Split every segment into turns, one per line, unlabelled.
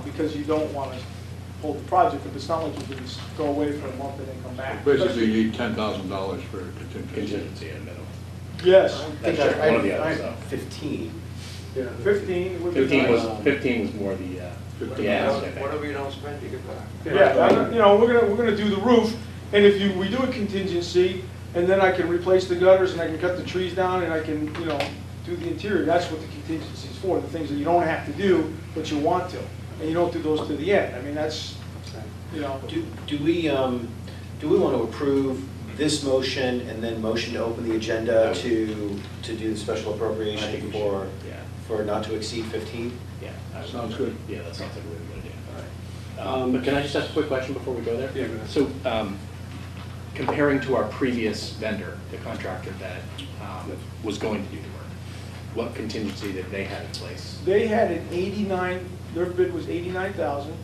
because you don't want to hold the project, if it's not like you can just go away for a month and then come back.
Basically, you need ten thousand dollars for contingency.
contingency in the middle.
Yes.
That's
Because
one of the
I-
others,
I-
though.
Fifteen.
Fifteen would be nice.
Fifteen was, fifteen was more the, uh, the ask, I think.
Whatever you don't spend, you get back.
Yeah, I- you know, we're gonna, we're gonna do the roof, and if you, we do a contingency, and then I can replace the gutters, and I can cut the trees down, and I can, you know, do the interior, that's what the contingency is for, the things that you don't have to do, but you want to, and you don't do those to the end, I mean, that's, you know.
Do, do we, um, do we want to approve this motion and then motion to open the agenda to, to do the special
I think
appropriation
we should,
for,
yeah.
for not to exceed fifteen?
Yeah. I would-
Sounds good.
Yeah, that sounds like a really good idea.
All right.
Um, But can I just ask a quick question before we go there?
Yeah, go ahead.
So um, comparing to our previous vendor, the contractor that um, was going to do the work, what contingency did they have in place?
They had an eighty-nine, their bid was eighty-nine thousand,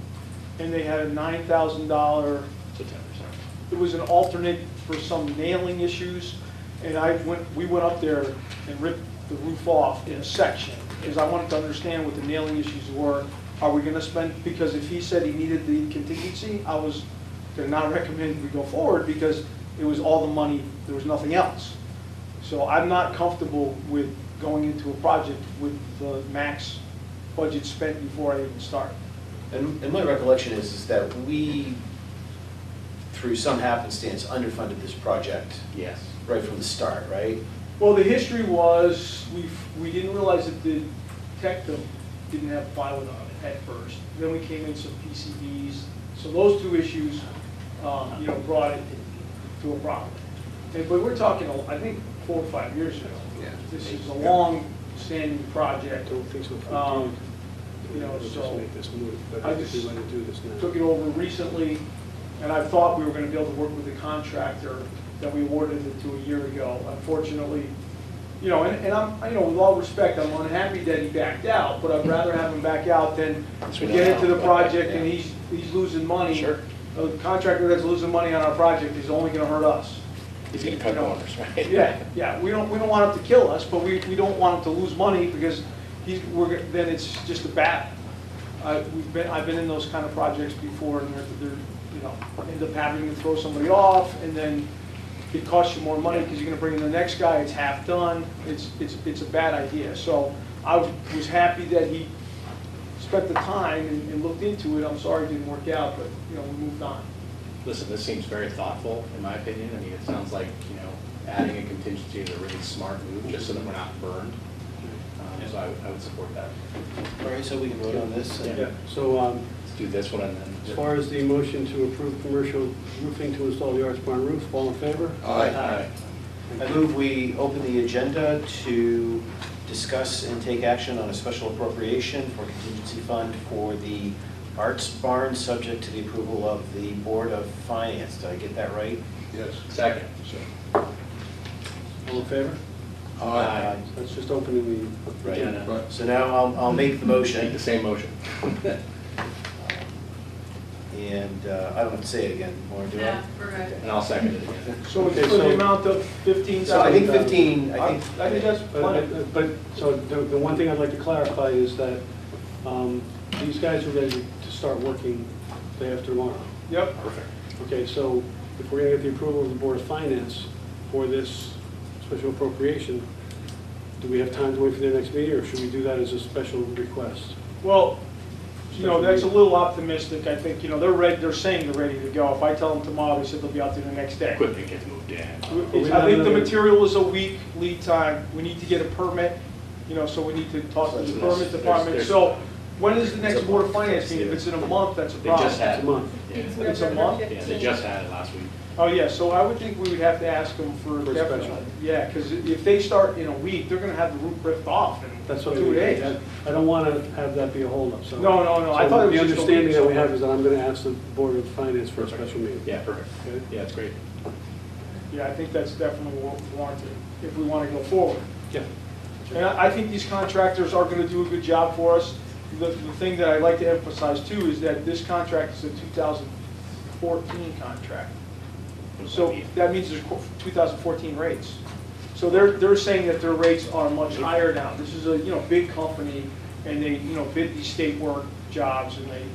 and they had a nine thousand dollar
So ten percent.
it was an alternate for some nailing issues, and I went, we went up there and ripped the roof off in a section, because I wanted to understand what the nailing issues were. Are we gonna spend, because if he said he needed the contingency, I was gonna not recommend we go forward, because it was all the money, there was nothing else. So I'm not comfortable with going into a project with the max budget spent before I even start.
And, and my recollection is, is that we, through some happenstance, underfunded this project
Yes.
right from the start, right?
Well, the history was, we, we didn't realize that the Tectum didn't have plywood on it at first. Then we came in some PCBs, so those two issues, um, you know, brought it to a problem. And, but we're talking, I think, four or five years ago.
Yeah.
This is a long-standing project.
don't think so. if we
Um,
do,
you know,
we'll just
so
make this move, but
I
I think we
just
want to do this now.
took it over recently, and I thought we were gonna be able to work with the contractor that we awarded it to a year ago. Unfortunately, you know, and, and I'm, you know, with all respect, I'm unhappy that he backed out, but I'd rather have him back out than
That's
we
what
get
I-
into the project and he's, he's losing money.
Sure.
A contractor that's losing money on our project is only gonna hurt us.
He's going to cut
You know,
corners, right?
Yeah, yeah, we don't, we don't want him to kill us, but we, we don't want him to lose money because he's, we're, g- then it's just a battle. I, we've been, I've been in those kind of projects before and they're, they're, you know, end up having to throw somebody off and then it costs you more money because you're gonna bring in the next guy, it's half done, it's, it's, it's a bad idea. So I was happy that he spent the time and, and looked into it, I'm sorry it didn't work out, but, you know, we moved on.
Listen, this seems very thoughtful, in my opinion. I mean, it sounds like, you know, adding a contingency is a really smart move, just so that we're not burned. Um, So I would- I would support that.
All right, so we can vote on this? and-
Yeah, so um,
Let's do this one and then.
as far as the motion to approve commercial roofing to install the Arts Barn roof, all in favor?
Uh,
Aye.
I move we open the agenda to discuss and take action on a special appropriation for contingency fund for the Arts Barn, subject to the approval of the Board of Finance. Did I get that right?
Yes.
Second.
All in favor?
Aye.
That's just opening the
Right.
agenda.
Right.
So now I'll, I'll make
Make the
the motion,
same motion.
and uh, I don't have to say it again, or do I?
Yeah, we're good.
And I'll second it again.
So it's
Okay,
for the
so-
amount of fifteen thousand.
So I think 15, I
I
think.
I think that's plenty.
But, but, so the, the one thing I'd like to clarify is that um, these guys are ready to start working day after tomorrow.
Yep,
Perfect.
Okay, so if we're gonna get the approval of the Board of Finance for this special appropriation, do we have time to wait for their next meeting, or should we do that as a special request?
well, you know, that's a little optimistic, I think, you know, they're ready, they're saying they're ready to go. If I tell them tomorrow, they said they'll be out there the next day.
Equipment gets moved in.
It's- I think the material is a week lead time, we need to get a permit, you know, so we need to talk to the permit department. So, when is the next Board of Finance meeting? If it's in a month, that's a
They just
problem.
had.
It's a month.
Yeah,
It's a month?
Yeah, they just had it last week.
Oh, yeah, so I would think we would have to ask them for
For a
definitely.
special.
Yeah, because if they start in a week, they're gonna have the roof ripped off in
That's what I
two days.
I don't wanna have that be a holdup, so.
No, no, no, I thought it was just a
So The understanding
week,
that
so-
we have is that I'm gonna ask the Board of Finance for a special meeting.
Yeah, perfect.
Okay.
Yeah, it's great.
Yeah, I think that's definitely wa- warranted, if we want to go forward.
Yeah.
And I I think these contractors are going to do a good job for us. The, the thing that I'd like to emphasize too is that this contract is a 2014 contract. So that means there's qu- 2014 rates. So they're, they're saying that their rates are much higher now. This is a, you know, big company, and they, you know, bid these state work jobs, and they, you